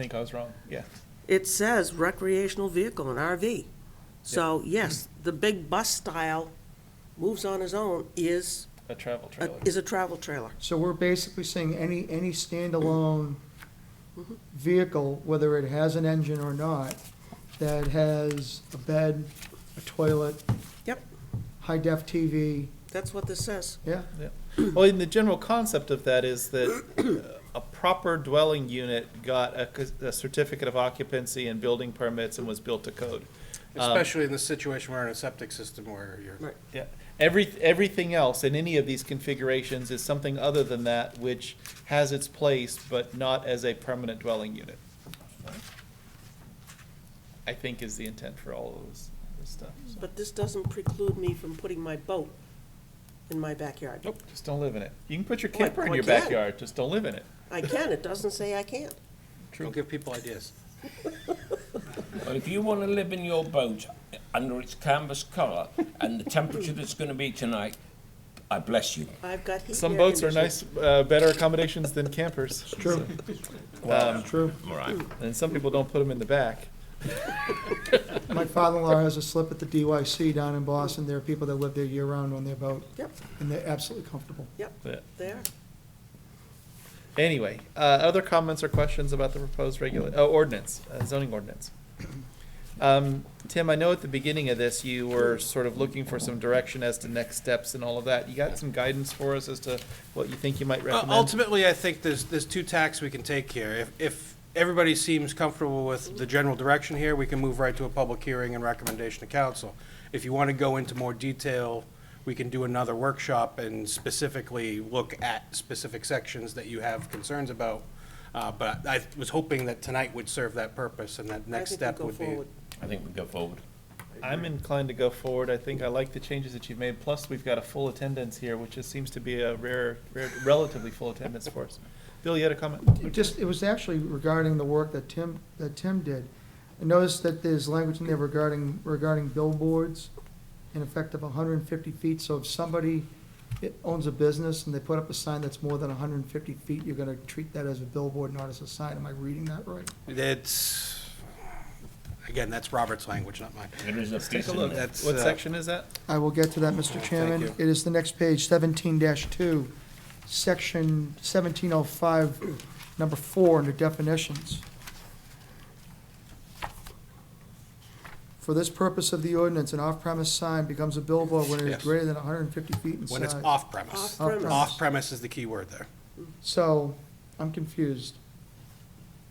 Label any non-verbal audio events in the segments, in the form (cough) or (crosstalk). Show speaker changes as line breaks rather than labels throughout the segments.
think I was wrong, yeah.
It says recreational vehicle and RV. So, yes, the big bus style moves on his own is,
A travel
a-
trailer.
is a travel trailer.
So we're basically saying any, any standalone vehicle, whether it has an engine or not, that has a bed, a toilet.
Yep.
High def TV,
That's what this says.
yeah,
(clears throat) Well, and the general concept of that is that uh, a proper dwelling unit got a, c- a certificate of occupancy and building permits and was built to code. Um,
Especially in this situation where in a septic system where
Right.
you're,
Yeah, every, everything else in any of these configurations is something other than that which has its place, but not as a permanent dwelling unit. I think is the intent for all of this, this stuff, so,
But this doesn't preclude me from putting my boat in my backyard.
nope, just don't live in it. You can put your
Well, I-
camper in
well, I
your
can.
backyard, just don't live in it.
I can, it doesn't say I can't.
don't
True.
give people ideas.
But if you want to live in your boat under its canvas colour and the temperature that's going to be tonight, I bless you.
I've got heat.
Some
air
boats are
conditioning.
nice, uh, better accommodations than campers. It's
true.
Um,
True.
All right.
and some people don't put them in the back.
My father-in-law has a slip at the DYC down in Boston. There are people that live there year-round on their boat,
Yep,
and they're absolutely comfortable.
But
they are.
anyway, uh, other comments or questions about the proposed regula, uh, ordinance, uh, zoning ordinance? Um, Tim, I know at the beginning of this, you were sort of looking for some direction as to next steps and all of that. You got some guidance for us as to what you think you might
Uh,
recommend?
Ultimately, I think there's, there's two tacks we can take here. If, if everybody seems comfortable with the general direction here, we can move right to a public hearing and recommendation to council. If you want to go into more detail, we can do another workshop and specifically look at specific sections that you have concerns about. Uh, But I was hoping that tonight would serve that purpose and that
I
next
think we
step
go
would be.
forward.
I think we go forward.
I'm inclined to go forward. I think I like the changes that you've made. Plus, we've got a full attendance here, which just seems to be a rare, rare, relatively full attendance for us. Bill, you had a comment?
It just, it was actually regarding the work that Tim, that Tim did. I noticed that there's language in there regarding, regarding billboards, in effect of hundred and fifty feet, so if somebody i- owns a business and they put up a sign that's more than hundred and fifty feet, you're gonna treat that as a billboard, not as a sign, am I reading that right?
That's, again, that's Robert's language, not mine.
It is a
Take
piece
a
in
look.
there.
That's,
What
uh,
section is that?
I will get to that, Mr.
Thank
Chairman.
you.
It is the next page, seventeen two, section seventeen oh five, number four, under definitions. For this purpose of the ordinance, an off-premise sign becomes a billboard when it is
Yes.
greater than hundred and fifty feet in size.
When it's off premise.
Off-premise.
Off premise is the key word there.
So, I'm confused.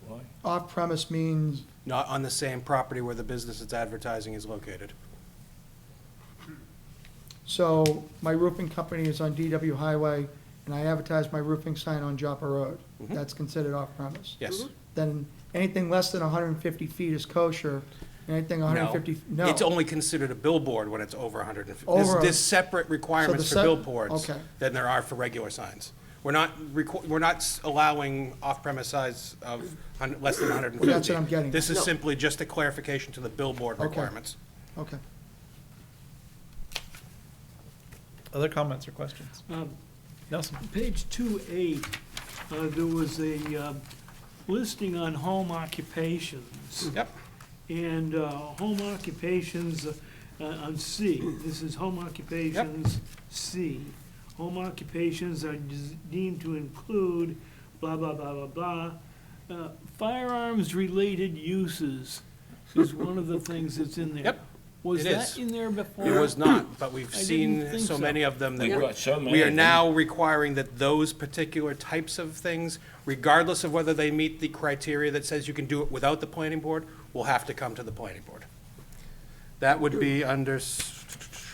Why?
Off-premise means,
Not on the same property where the business it's advertising is located.
so my roofing company is on DW Highway, and I advertise my roofing sign on Joppa Road.
Mhm.
That's considered off-premise.
Yes.
Mm-hmm.
then anything less than hundred and fifty feet is kosher, and anything hundred and fifty, no.
It's only considered a billboard when it's over 150. There's,
Over-
there's separate requirements for
sep-
billboards
okay.
than there are for regular signs. We're not, requ- we're not s- allowing off-premise size of hun- less than 150.
That's what I'm getting
This
at.
is
No.
simply just a clarification to the billboard
Okay.
requirements.
Okay,
Other comments or questions?
Um,
Nelson?
Page two A, uh, there was a, uh, listing on home occupations.
Yep.
And, uh, home occupations, uh, on C, this is home occupations, C. Home occupations are des- deemed to include blah, blah, blah, blah, blah. Uh, firearms-related uses is one of the things that's in there.
Yep,
Was
it
that
is.
in there before?
It was not, but we've
I didn't
seen
think
so
so.
many of them that
We've
we're-
got so many
We
of
are
them.
now requiring that those particular types of things, regardless of whether they meet the criteria that says you can do it without the planning board, will have to come to the planning board. That would be under. s-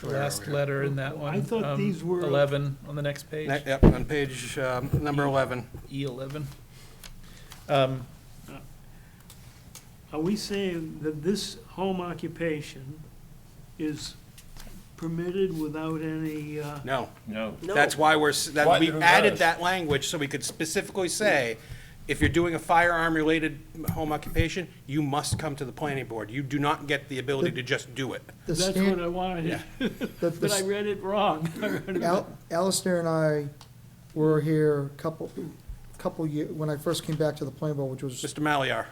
where are
Last
we?
letter in that one.
I thought
um,
these were-
Eleven on the next page,
Ne- Yep, on page, um, number eleven.
E eleven. Um,
Are we saying that this home occupation is permitted without any, uh,
No,
No.
No.
that's why we're, s- that,
Why
we
did it
added
rise?
that language so we could specifically say, if you're doing a firearm-related home occupation, you must come to the planning board. You do not get the ability to just do it.
the
that's what I
stand,
wanted,
the,
but I
the,
read it wrong. (laughs) I read it wrong.
Al- Alistair and I were here a couple, couple year, when I first came back to the planning board, which was
Mr. Maliar.